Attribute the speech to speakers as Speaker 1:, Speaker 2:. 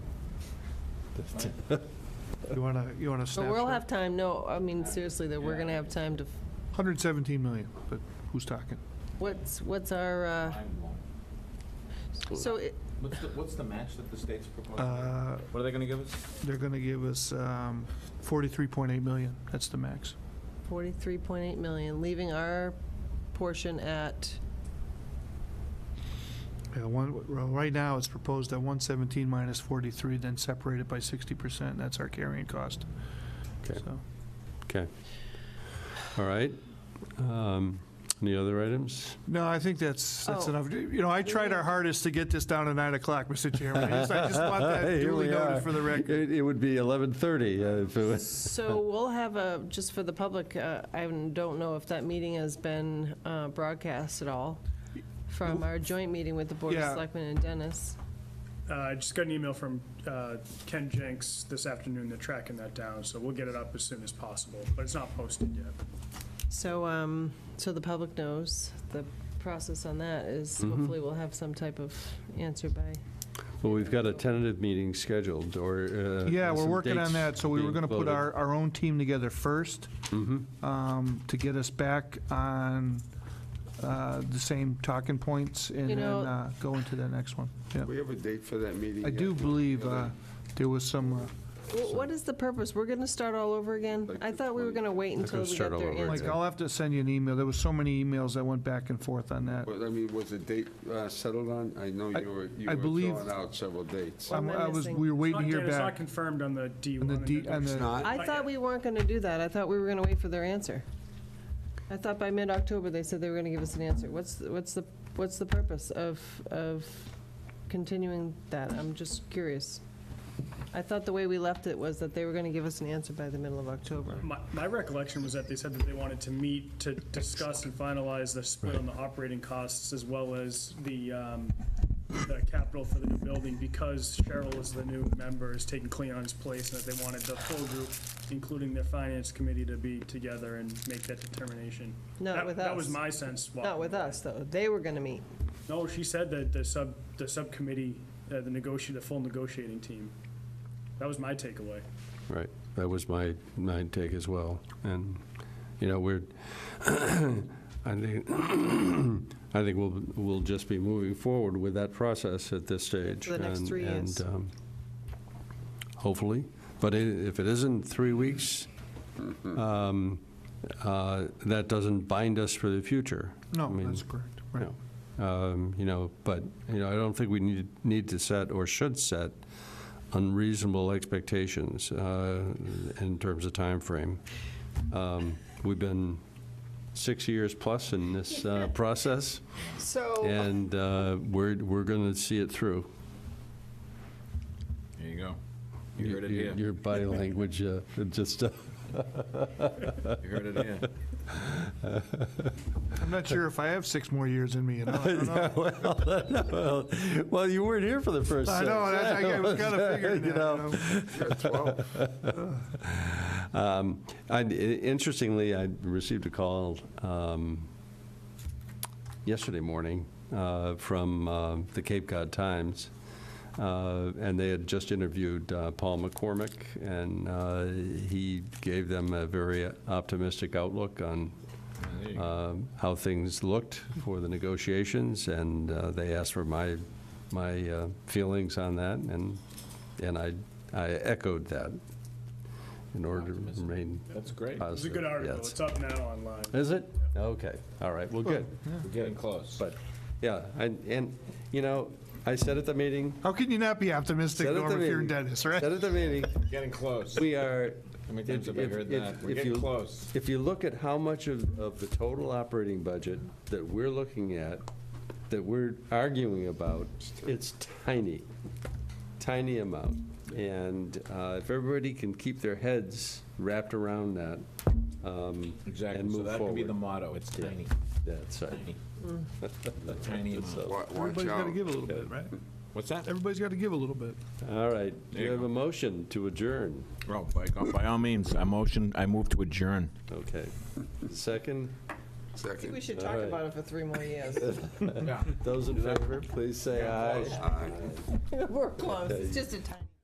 Speaker 1: You want to, you want to
Speaker 2: But we'll have
Speaker 1: snapshot?
Speaker 2: time, no, I mean, seriously, that we're gonna have time to,
Speaker 1: 117 million, but who's talking?
Speaker 2: what's, what's our, uh,
Speaker 3: Mind blown.
Speaker 2: so, it-
Speaker 3: What's the, what's the match that the state's proposing?
Speaker 1: Uh,
Speaker 3: What are they gonna give us?
Speaker 1: They're going to give us um, 43.8 million, that's the max.
Speaker 2: 43.8 million, leaving our portion at,
Speaker 1: Yeah, one, well, right now, it's proposed at 117 minus 43, then separated by 60%, and that's our carrying cost.
Speaker 4: Okay.
Speaker 1: So,
Speaker 4: Okay. All right. Um, Any other items?
Speaker 1: No, I think that's, that's
Speaker 2: Oh.
Speaker 1: enough. You know, I tried our hardest to get this down to 9 o'clock, Mr. Chairman. I just, I just want
Speaker 4: Hey,
Speaker 1: that
Speaker 4: here
Speaker 1: duly
Speaker 4: we are.
Speaker 1: noted for the record.
Speaker 4: It it would be 11:30 uh, if it was.
Speaker 2: so we'll have a, just for the public, uh, I don't know if that meeting has been uh, broadcast at all from our joint meeting with the Board of
Speaker 1: Yeah.
Speaker 2: Selectmen and Dennis.
Speaker 5: Uh, I just got an email from uh, Ken Jenks this afternoon, they're tracking that down, so we'll get it up as soon as possible, but it's not posted yet.
Speaker 2: So, um, so the public knows, the process on that is hopefully we'll have some type of answer by
Speaker 4: Well, we've got a tentative meeting scheduled, or. uh,
Speaker 1: Yeah, we're
Speaker 4: some
Speaker 1: working on
Speaker 4: dates
Speaker 1: that, so we were
Speaker 4: being
Speaker 1: gonna put
Speaker 4: floated.
Speaker 1: our, our own team together first,
Speaker 4: Mhm.
Speaker 1: um, to get us back on, uh, the same talking points and
Speaker 2: You
Speaker 1: then,
Speaker 2: know-
Speaker 1: uh, go into the next one, yeah.
Speaker 6: We have a date for that meeting.
Speaker 1: I
Speaker 6: yet?
Speaker 1: do believe, uh, there was some, uh,
Speaker 2: Wh- What is the purpose? We're going to start all over again?
Speaker 6: Like
Speaker 2: I
Speaker 6: the
Speaker 2: thought we were
Speaker 6: 20
Speaker 2: going to wait until
Speaker 4: gonna
Speaker 2: we
Speaker 4: start
Speaker 2: got
Speaker 4: all
Speaker 2: their
Speaker 4: over
Speaker 1: like,
Speaker 2: answer.
Speaker 4: again.
Speaker 1: I'll have to send you an email, there was so many emails that went back and forth on that.
Speaker 6: But I mean, was the date uh, settled on? I know you were, you
Speaker 1: I believe-
Speaker 6: were drawing out several dates.
Speaker 2: What
Speaker 1: I'm-
Speaker 2: am I
Speaker 1: I was,
Speaker 2: missing?
Speaker 1: we were waiting to
Speaker 5: It's
Speaker 1: hear
Speaker 5: not- It's not
Speaker 1: back
Speaker 5: confirmed on the D1.
Speaker 1: on the
Speaker 5: and
Speaker 1: D, on
Speaker 6: It's
Speaker 1: the,
Speaker 6: not?
Speaker 2: I thought we weren't going to do that. I thought we were going to wait for their answer. I thought by mid-October, they said they were going to give us an answer. What's, what's the, what's the purpose of, of continuing that? I'm just curious. I thought the way we left it was that they were going to give us an answer by the middle of October.
Speaker 5: My my recollection was that they said that they wanted to meet to discuss and finalize the split on the operating costs as well as the, um, the capital for the new building, because Cheryl is the new member, is taking Cleon's place, and that they wanted the full group, including their finance committee, to be together and make that determination.
Speaker 2: Not
Speaker 5: That-
Speaker 2: with
Speaker 5: That
Speaker 2: us.
Speaker 5: was my sense.
Speaker 2: Not with us, though. They were going to meet.
Speaker 5: No, she said that the sub, the subcommittee, uh, the negotiate, the full negotiating team. That was my takeaway.
Speaker 4: Right, that was my, my take as well. And, you know, we're, I think, I think we'll, we'll just be moving forward with that process at this stage.
Speaker 2: For the next
Speaker 4: and-
Speaker 2: three years.
Speaker 4: and, um, Hopefully, but i- if it isn't three weeks,
Speaker 2: Mm-hmm.
Speaker 4: um, uh, that doesn't bind us for the future. I
Speaker 1: no,
Speaker 4: mean,
Speaker 1: that's correct, right.
Speaker 4: um, You know, but, you know, I don't think we need, need to set or should set unreasonable expectations uh, in terms of timeframe. Um, We've been six years plus in this uh, process,
Speaker 2: So,
Speaker 4: and uh, we're, we're going to see it through.
Speaker 3: There you go. You heard it
Speaker 4: Your-
Speaker 3: here.
Speaker 4: Your body language uh, it just, uh,
Speaker 3: You heard it here.
Speaker 1: I'm not sure if I have six more years in me, you know, I don't know.
Speaker 4: well, well, you weren't here for the first
Speaker 1: I
Speaker 4: six.
Speaker 1: know, I I was kind of figuring
Speaker 4: You
Speaker 1: that,
Speaker 4: know.
Speaker 1: you know.
Speaker 4: Um, I, interestingly, I received a call um, yesterday morning uh, from uh, the Cape Cod Times, uh, and they had just interviewed uh, Paul McCormick, and uh, he gave them a very optimistic outlook on
Speaker 3: There you go.
Speaker 4: um, how things looked for the negotiations, and uh, they asked for my, my uh, feelings on that, and, and I, I echoed that in order to
Speaker 3: Optimism.
Speaker 4: remain
Speaker 3: That's great.
Speaker 4: positive.
Speaker 5: It was a good article.
Speaker 4: yes.
Speaker 5: It's up now online.
Speaker 4: Is it? Okay, all right, well, good.
Speaker 3: We're getting close.
Speaker 4: But, yeah, and, and, you know, I said at the meeting,
Speaker 1: How can you not be optimistic,
Speaker 4: said at the
Speaker 1: Norm, if you're
Speaker 4: meeting.
Speaker 1: in Dennis, right?
Speaker 4: Said at the meeting,
Speaker 3: Getting close.
Speaker 4: we are.
Speaker 3: How many times
Speaker 4: if-
Speaker 3: have I
Speaker 4: if-
Speaker 3: heard
Speaker 4: if-
Speaker 3: that? We're
Speaker 4: if
Speaker 3: getting
Speaker 4: you-
Speaker 3: close.
Speaker 4: If you look at how much of, of the total operating budget that we're looking at, that we're arguing about, it's tiny, tiny amount. And uh, if everybody can keep their heads wrapped around that, um,
Speaker 3: Exactly.
Speaker 4: and
Speaker 3: So
Speaker 4: move
Speaker 3: that could be the
Speaker 4: forward.
Speaker 3: motto. It's
Speaker 4: Yeah.
Speaker 3: tiny.
Speaker 4: that's right.
Speaker 3: Tiny. Tiny amount.
Speaker 6: Wa- Watch
Speaker 1: Everybody's got to
Speaker 6: out.
Speaker 1: give a little bit, right?
Speaker 3: What's that?
Speaker 1: Everybody's got to give a little bit.
Speaker 4: All right, do
Speaker 3: There you
Speaker 4: you have
Speaker 3: go.
Speaker 4: a motion to adjourn?
Speaker 3: Oh, by, by all means, I motion, I move to adjourn.
Speaker 4: Okay. Second,
Speaker 6: Second.
Speaker 2: we should
Speaker 4: All
Speaker 2: talk
Speaker 4: right.
Speaker 2: about it for three more years.
Speaker 3: Yeah.
Speaker 4: those in favor, please say aye.
Speaker 6: Aye.
Speaker 2: We're close. It's just a time.